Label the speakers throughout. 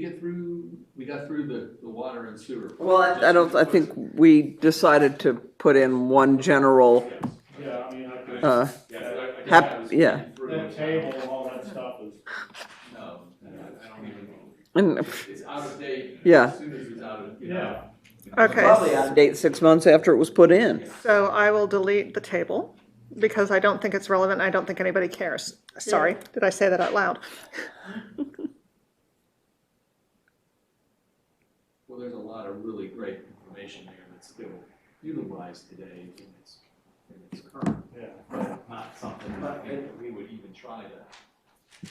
Speaker 1: get through, we got through the, the water and sewer.
Speaker 2: Well, I, I don't, I think we decided to put in one general,
Speaker 3: Yeah, I mean, I could,
Speaker 2: uh,
Speaker 1: Yeah, I- I
Speaker 2: Hap-
Speaker 1: guess I was
Speaker 2: yeah.
Speaker 1: thinking through
Speaker 3: that
Speaker 1: it.
Speaker 3: table and all that stuff is,
Speaker 1: No, I don't even know.
Speaker 2: and
Speaker 1: It's out of date.
Speaker 2: Yeah.
Speaker 1: As soon as it's out of, you know.
Speaker 3: yeah,
Speaker 2: probably
Speaker 4: Okay,
Speaker 2: out of date six months after it was put in.
Speaker 4: so I will delete the table because I don't think it's relevant. and I don't think anybody cares. Sorry, did I say that out loud?
Speaker 1: Well, there's a lot of really great information there that's still utilized today in its, in its current,
Speaker 3: yeah.
Speaker 1: but not something that I think that we would even try to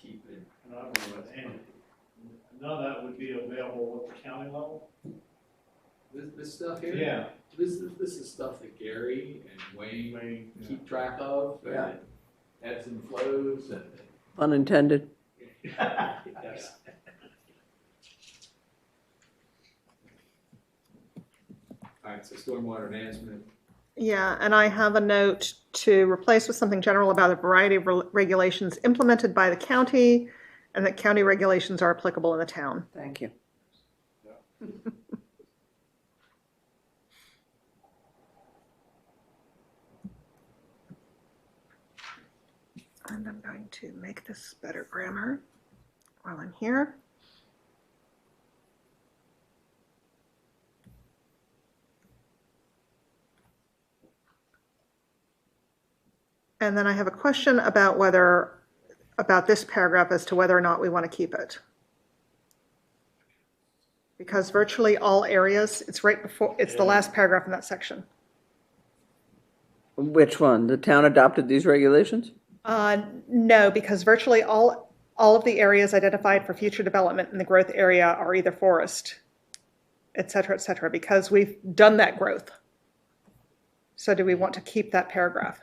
Speaker 1: keep in.
Speaker 3: And I would, and none of that would be available at the county level?
Speaker 1: This, this stuff here? This is, this is stuff that Gary and Wayne
Speaker 3: Anyway, yeah.
Speaker 1: keep track of, and
Speaker 2: Yeah.
Speaker 1: it ebbs and flows, and.
Speaker 2: Unintended.
Speaker 1: Yes. All right, so stormwater management,
Speaker 4: Yeah, and I have a note to replace with something general about a variety of re- regulations implemented by the county and that county regulations are applicable in the town.
Speaker 2: Thank you.
Speaker 4: And I'm going to make this better grammar while I'm here. And then I have a question about whether, about this paragraph as to whether or not we want to keep it. Because virtually all areas, it's right before, it's the last paragraph in that section.
Speaker 2: Which one? The town adopted these regulations?
Speaker 4: Uh, no, because virtually all, all of the areas identified for future development in the growth area are either forest, et cetera, et cetera, because we've done that growth. So do we want to keep that paragraph?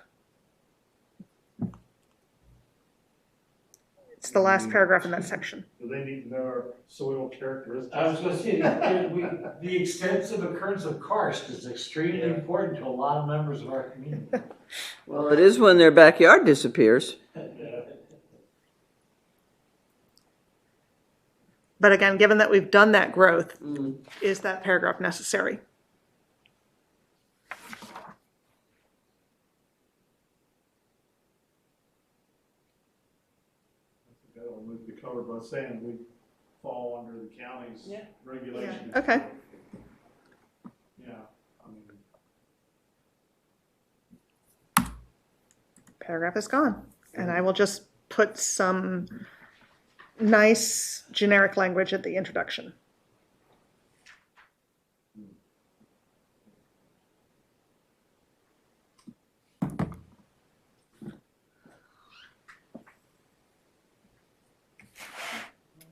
Speaker 4: It's the last paragraph in that section.
Speaker 3: Do they need to know our soil characteristics?
Speaker 5: I was gonna say, that we, the extensive occurrence of karst is extremely
Speaker 3: Yeah.
Speaker 5: important to a lot of members of our community.
Speaker 2: Well, it is when their backyard disappears.
Speaker 3: Yeah.
Speaker 4: But again, given that we've done that growth, is that paragraph necessary?
Speaker 3: That'll move the cover by saying we fall under the county's
Speaker 2: Yeah.
Speaker 3: regulations.
Speaker 4: Yeah, okay.
Speaker 3: Yeah, I mean,
Speaker 4: paragraph is gone. And I will just put some nice generic language at the introduction.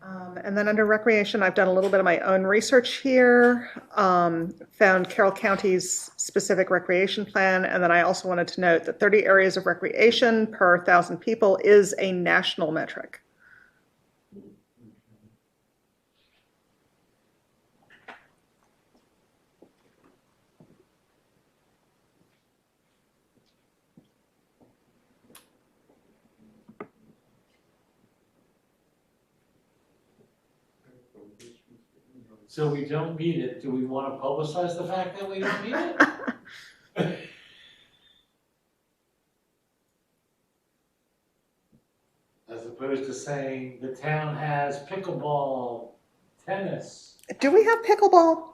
Speaker 4: Um, and then under recreation, I've done a little bit of my own research here, um, found Carroll County's specific recreation plan, and then I also wanted to note that 30 areas of recreation per thousand people is a national metric.
Speaker 5: So we don't need it, do we wanna publicize the fact that we don't need it? As opposed to saying the town has pickleball, tennis,
Speaker 4: Do we have pickleball?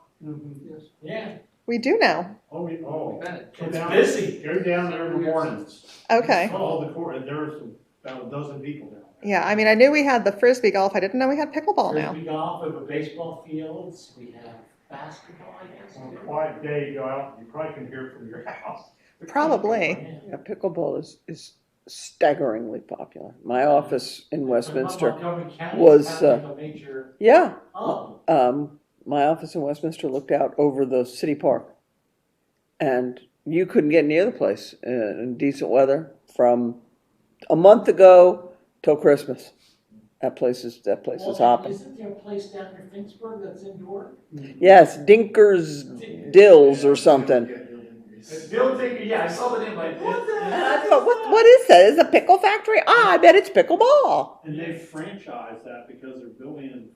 Speaker 5: yeah,
Speaker 4: We do now.
Speaker 3: oh, we, oh.
Speaker 1: Bennett,
Speaker 3: Go
Speaker 5: It's
Speaker 3: down-
Speaker 5: busy.
Speaker 3: Go down there in the mornings.
Speaker 4: Okay.
Speaker 3: All the court, and there's about a dozen people down there.
Speaker 4: Yeah, I mean, I knew we had the frisbee golf. I didn't know we had pickleball now.
Speaker 5: frisbee golf, we have baseball fields, we have basketball, I guess.
Speaker 3: On a quiet day, you go out, you probably can hear it from your house.
Speaker 4: Probably.
Speaker 5: Yeah.
Speaker 2: Yeah, pickleball is, is staggeringly popular. My office in Westminster,
Speaker 5: Montgomery County
Speaker 2: was, uh,
Speaker 5: is having a major,
Speaker 2: yeah,
Speaker 5: oh,
Speaker 2: um, my office in Westminster looked out over the city park, and you couldn't get near the place uh, in decent weather from a month ago till Christmas. That place is that place is
Speaker 5: Well,
Speaker 2: hopping.
Speaker 5: Isn't there a place down near Finksburg that's indoor?
Speaker 2: Yes, Dinkers Dills or something.
Speaker 5: Bill Digger, yeah, I saw the name like. What the
Speaker 2: And I thought, what, what is that? Is it a pickle factory? Ah, I bet it's pickleball.
Speaker 3: And they franchise that because they're building